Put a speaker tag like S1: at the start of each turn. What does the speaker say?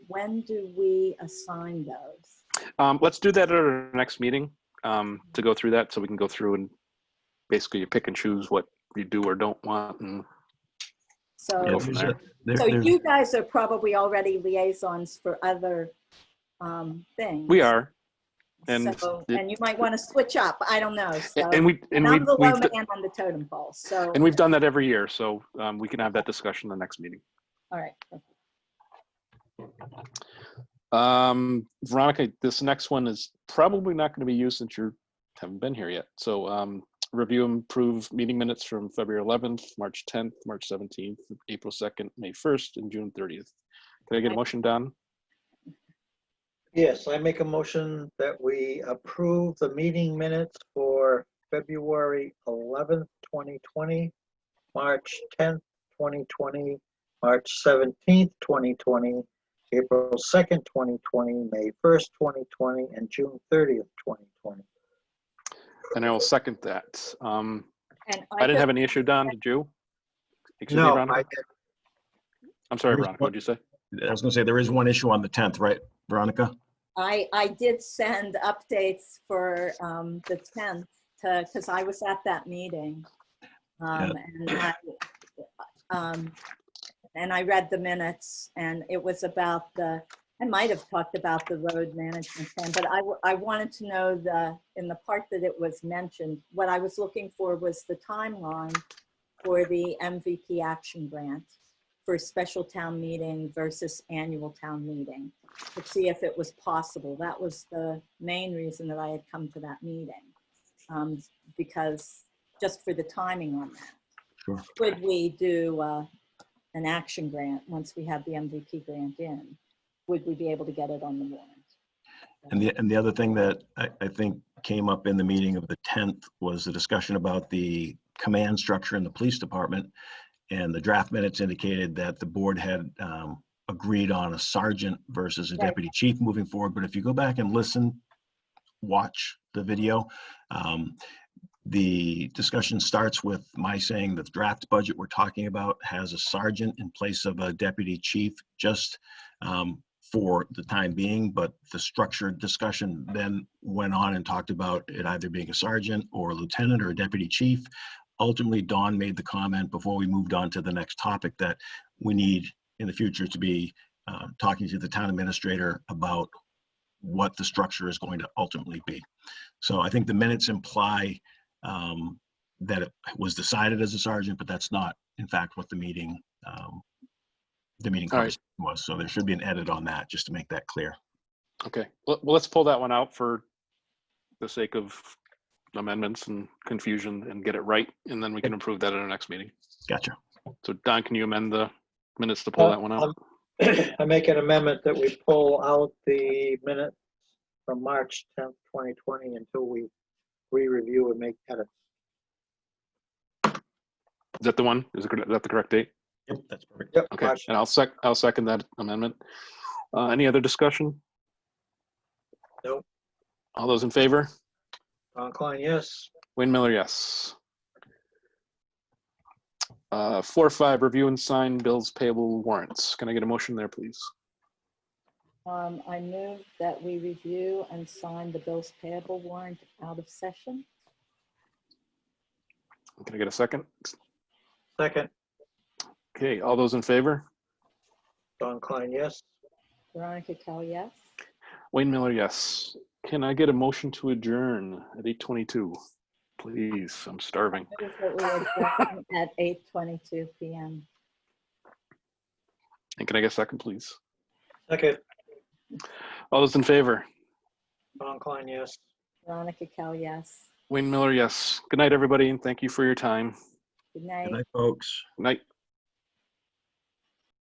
S1: when do we assign those?
S2: Um, let's do that at our next meeting, um, to go through that, so we can go through and basically you pick and choose what you do or don't want, and
S1: So,
S2: Go
S3: Yeah,
S2: from
S3: there's
S2: there.
S3: a- there-
S1: Oh, so
S3: there's-
S1: you guys are probably already liaisons for other um, things.
S2: we are. And,
S1: So-
S2: it-
S1: And you might want to switch up, I don't know, so.
S2: and we, and
S1: And
S2: we,
S1: I'm the low
S2: we've, d-
S1: man on the totem pole, so,
S2: and we've done that every year, so, um, we can have that discussion the next meeting.
S1: all right.
S2: Um, Veronica, this next one is probably not going to be you since you haven't been here yet. So, um, review and approve meeting minutes from February 11th, March 10th, March 17th, April 2nd, May 1st, and June 30th. Can I get a motion, Don?
S4: Yes, I make a motion that we approve the meeting minutes for February 11th, 2020, March 10th, 2020, March 17th, 2020, April 2nd, 2020, May 1st, 2020, and June 30th, 2020.
S2: And I will second that. Um,
S1: And
S2: I didn't have any issue, Don, did you? Excuse me,
S4: No,
S2: Veronica?
S4: I did-
S2: I'm sorry,
S3: There is
S2: Veronica,
S3: one-
S2: what'd you say?
S3: I was gonna say, there is one issue on the 10th, right, Veronica?
S1: I, I did send updates for um, the 10th to, because I was at that meeting. Um, And I um, and I read the minutes and it was about the, I might have talked about the road management plan, but I, w- I wanted to know the, in the part that it was mentioned, what I was looking for was the timeline for the MVP action grant for special town meeting versus annual town meeting to see if it was possible. That was the main reason that I had come to that meeting. um, Because, just for the timing on that.
S3: Sure.
S1: Could we do uh, an action grant once we have the MVP grant in? Would we be able to get it on the warrant?
S3: And the, and the other thing that I, I think came up in the meeting of the 10th was the discussion about the command structure in the police department. And the draft minutes indicated that the board had um, agreed on a sergeant versus a
S1: Right.
S3: deputy chief moving forward. But if you go back and listen, watch the video, um, the discussion starts with my saying that the draft budget we're talking about has a sergeant in place of a deputy chief, just um, for the time being, but the structured discussion then went on and talked about it either being a sergeant or a lieutenant or a deputy chief. Ultimately, Don made the comment before we moved on to the next topic that we need in the future to be uh, talking to the town administrator about what the structure is going to ultimately be. So I think the minutes imply um, that it was decided as a sergeant, but that's not, in fact, what the meeting, um, the meeting
S2: All right.
S3: conversation was. So there should be an edit on that, just to make that clear.
S2: Okay, well, well, let's pull that one out for the sake of amendments and confusion and get it right, and then we can improve that at our next meeting.
S3: Gotcha.
S2: So Don, can you amend the minutes to pull
S4: Uh,
S2: that one
S4: um,
S2: out?
S4: I make an amendment that we pull out the minutes from March 10th, 2020 until we re-review and make edits.
S2: Is that the one? Is it cor- is that the correct date?
S3: Yep, that's perfect.
S4: Yep,
S2: Okay,
S4: March
S2: and I'll sec, I'll second that amendment. Uh, any other discussion?
S4: Nope.
S2: All those in favor?
S4: Don Klein, yes.
S2: Wayne Miller, yes. Uh, four, five, review and sign bills payable warrants. Can I get a motion there, please?
S1: Um, I move that we review and sign the bills payable warrant out of session.
S2: Can I get a second?
S4: Second,
S2: Okay, all those in favor?
S4: Don Klein, yes.
S1: Veronica Kell, yes?
S2: Wayne Miller, yes. Can I get a motion to adjourn at eight twenty-two? Please, I'm starving.
S1: Move that we adjourn At 8:22 PM.
S2: And can I get a second, please?
S4: Second,
S2: All those in favor?
S4: Don Klein, yes.
S1: Veronica Kell, yes?
S2: Wayne Miller, yes. Good night, everybody, and thank you for your time.
S1: Good night.
S3: Good night, folks.
S2: Night.